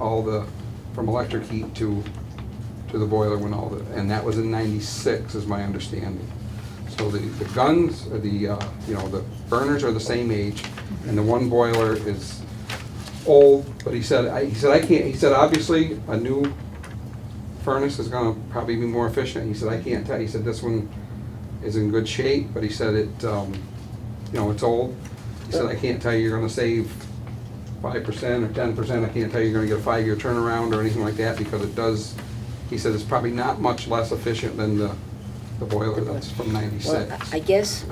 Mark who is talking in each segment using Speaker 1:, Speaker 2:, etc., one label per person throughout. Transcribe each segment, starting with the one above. Speaker 1: all the, from electric heat to, to the boiler when all the, and that was in ninety-six is my understanding. So the, the guns, uh, the, uh, you know, the burners are the same age, and the one boiler is old, but he said, I, he said, I can't, he said, obviously, a new furnace is gonna probably be more efficient, he said, I can't tell, he said, this one is in good shape, but he said it, um, you know, it's old. He said, I can't tell you you're gonna save five percent or ten percent, I can't tell you you're gonna get a five-year turnaround or anything like that, because it does, he said, it's probably not much less efficient than the, the boiler that's from
Speaker 2: Well,
Speaker 1: ninety-six.
Speaker 2: I I guess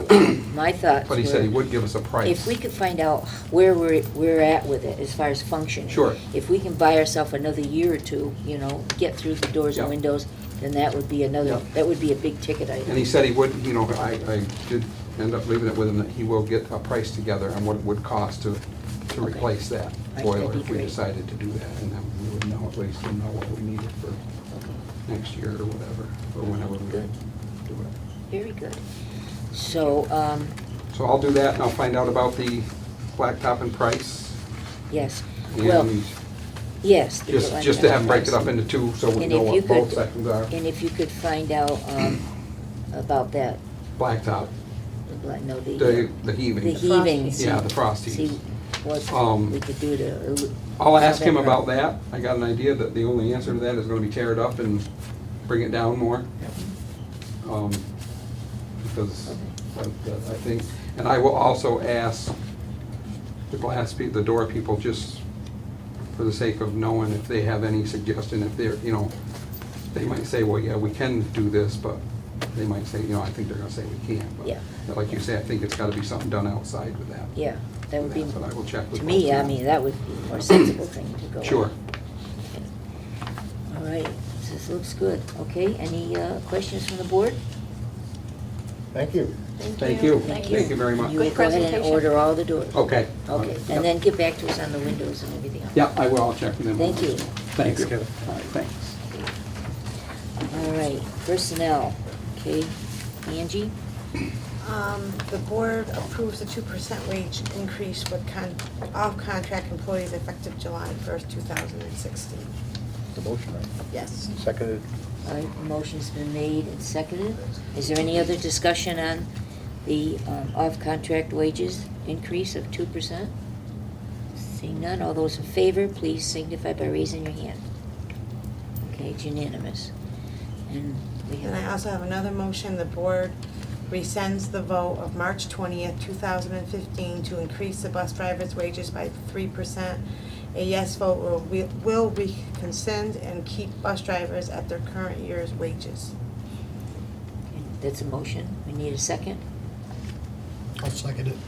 Speaker 2: my thoughts
Speaker 1: But he said he
Speaker 2: were,
Speaker 1: would give us a
Speaker 2: if
Speaker 1: price.
Speaker 2: we could find out where we're, we're at with it as far as functioning.
Speaker 1: Sure.
Speaker 2: If we can buy ourselves another year or two, you know, get through the doors and
Speaker 1: Yeah.
Speaker 2: windows, then that would be another,
Speaker 1: Yeah.
Speaker 2: that would be a big ticket
Speaker 1: And he
Speaker 2: item.
Speaker 1: said he would, you know, I, I did end up leaving it with him that he will get a price together on what it would cost to, to
Speaker 2: Okay.
Speaker 1: replace that
Speaker 2: that'd
Speaker 1: boiler
Speaker 2: be
Speaker 1: if we
Speaker 2: great.
Speaker 1: decided to do that, and then we would know, at least, and know what we needed for next year or whatever, or whenever we do
Speaker 2: Good.
Speaker 1: it.
Speaker 2: Very good. So, um,
Speaker 1: So I'll do that, and I'll find out about the blacktop and price,
Speaker 2: yes, well,
Speaker 1: and
Speaker 2: yes. the
Speaker 1: just,
Speaker 2: alignment
Speaker 1: just to have,
Speaker 2: of
Speaker 1: break it up
Speaker 2: price.
Speaker 1: into two, so we
Speaker 2: And
Speaker 1: know
Speaker 2: if you
Speaker 1: what both
Speaker 2: could-
Speaker 1: sections are.
Speaker 2: And if you could find out um, about that,
Speaker 1: Blacktop,
Speaker 2: the black- no, the, uh,
Speaker 1: the, the
Speaker 2: the
Speaker 1: heaving.
Speaker 2: heaving. see-
Speaker 1: Yeah, the frost
Speaker 2: See
Speaker 1: heaves.
Speaker 2: what
Speaker 1: Um,
Speaker 2: we could do to. el-
Speaker 1: I'll ask him
Speaker 2: November.
Speaker 1: about that. I got an idea that the only answer to that is gonna be tear it up and bring it down more. Um, Because I I think, and I will also ask the glass, peo- the door people, just for the sake of knowing if they have any suggestion, if they're, you know, they might say, well, yeah, we can do this, but they might say, you know, I think they're gonna say we can't. But
Speaker 2: Yeah.
Speaker 1: Like you say, I think it's gotta be something done outside with that.
Speaker 2: Yeah, that would be,
Speaker 1: That's what I will check with
Speaker 2: to me, I
Speaker 1: both.
Speaker 2: mean, that would be a more sensible thing to go. with.
Speaker 1: Sure.
Speaker 2: All right, this looks good. Okay, any uh, questions from the board?
Speaker 3: Thank you.
Speaker 1: Thank you.
Speaker 2: Thank
Speaker 1: Thank you very much.
Speaker 2: You will
Speaker 4: Good
Speaker 2: go ahead and
Speaker 4: presentation.
Speaker 2: order all the doors.
Speaker 1: Okay.
Speaker 2: Okay, and then get back to us on the windows and everything else.
Speaker 1: Yeah, I will, I'll check with them.
Speaker 2: Thank you.
Speaker 1: Thanks, Kevin. All right, thanks.
Speaker 2: All right, personnel, okay, Angie?
Speaker 4: Um, The board approves a two percent wage increase with con, all contract employees effective July first, two thousand and sixteen.
Speaker 3: The motion, right?
Speaker 4: Yes.
Speaker 3: Seconded.
Speaker 2: All right, motion's been made and seconded. Is there any other discussion on the um, off-contract wages increase of two percent? Seeing none, all those in favor, please signify by raising your hand. Okay, it's unanimous. And we
Speaker 4: And I
Speaker 2: have,
Speaker 4: also have another motion, the board rescinds the vote of March twentieth, two thousand and fifteen to increase the bus driver's wages by three percent. A yes vote will, re- will rescind and keep bus drivers at their current year's wages.
Speaker 2: that's a motion. We need a second.
Speaker 5: I'll second it.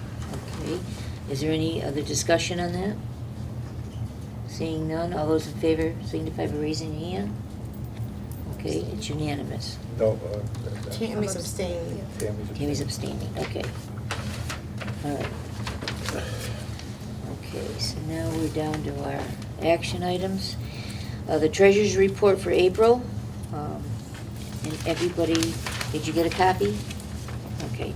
Speaker 2: Okay, is there any other discussion on that? Seeing none, all those in favor signify by raising your hand. Okay, it's unanimous.
Speaker 3: No. uh,
Speaker 4: Tammy's abstaining.
Speaker 3: Tammy's.
Speaker 2: Tammy's abstaining, okay. All right. Okay, so now we're down to our action items. Uh, The treasurer's report for April. um, And everybody, did you get a copy? Okay.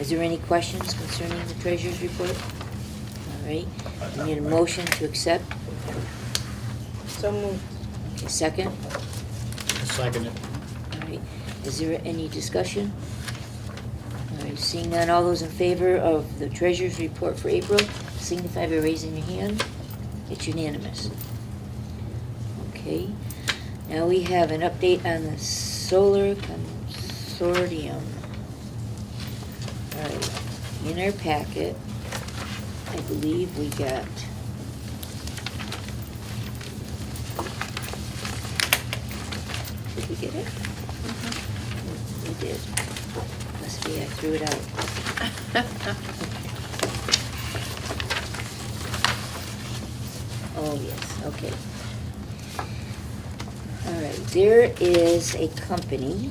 Speaker 2: Is there any questions concerning the treasurer's report? All right, we need a motion to accept.
Speaker 4: So moved.
Speaker 2: Okay, Second,
Speaker 5: I'll second it.
Speaker 2: all right. Is there any discussion? All right, seeing none, all those in favor of the treasurer's report for April, signify by raising your hand. It's unanimous. Okay, now we have an update on the solar consortium. All right, in our packet, I believe we got Did we get it? We did. Must be, I threw it out. Oh, yes, okay. All right, there is a company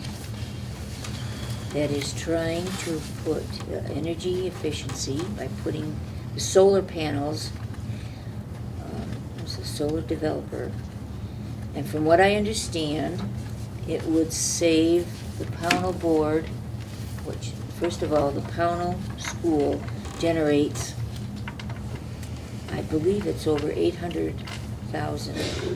Speaker 2: that is trying to put uh, energy efficiency by putting the solar panels, um, it's a solar developer, and from what I understand, it would save the Pownell Board, which, first of all, the Pownell School generates, I believe it's over eight hundred thousand.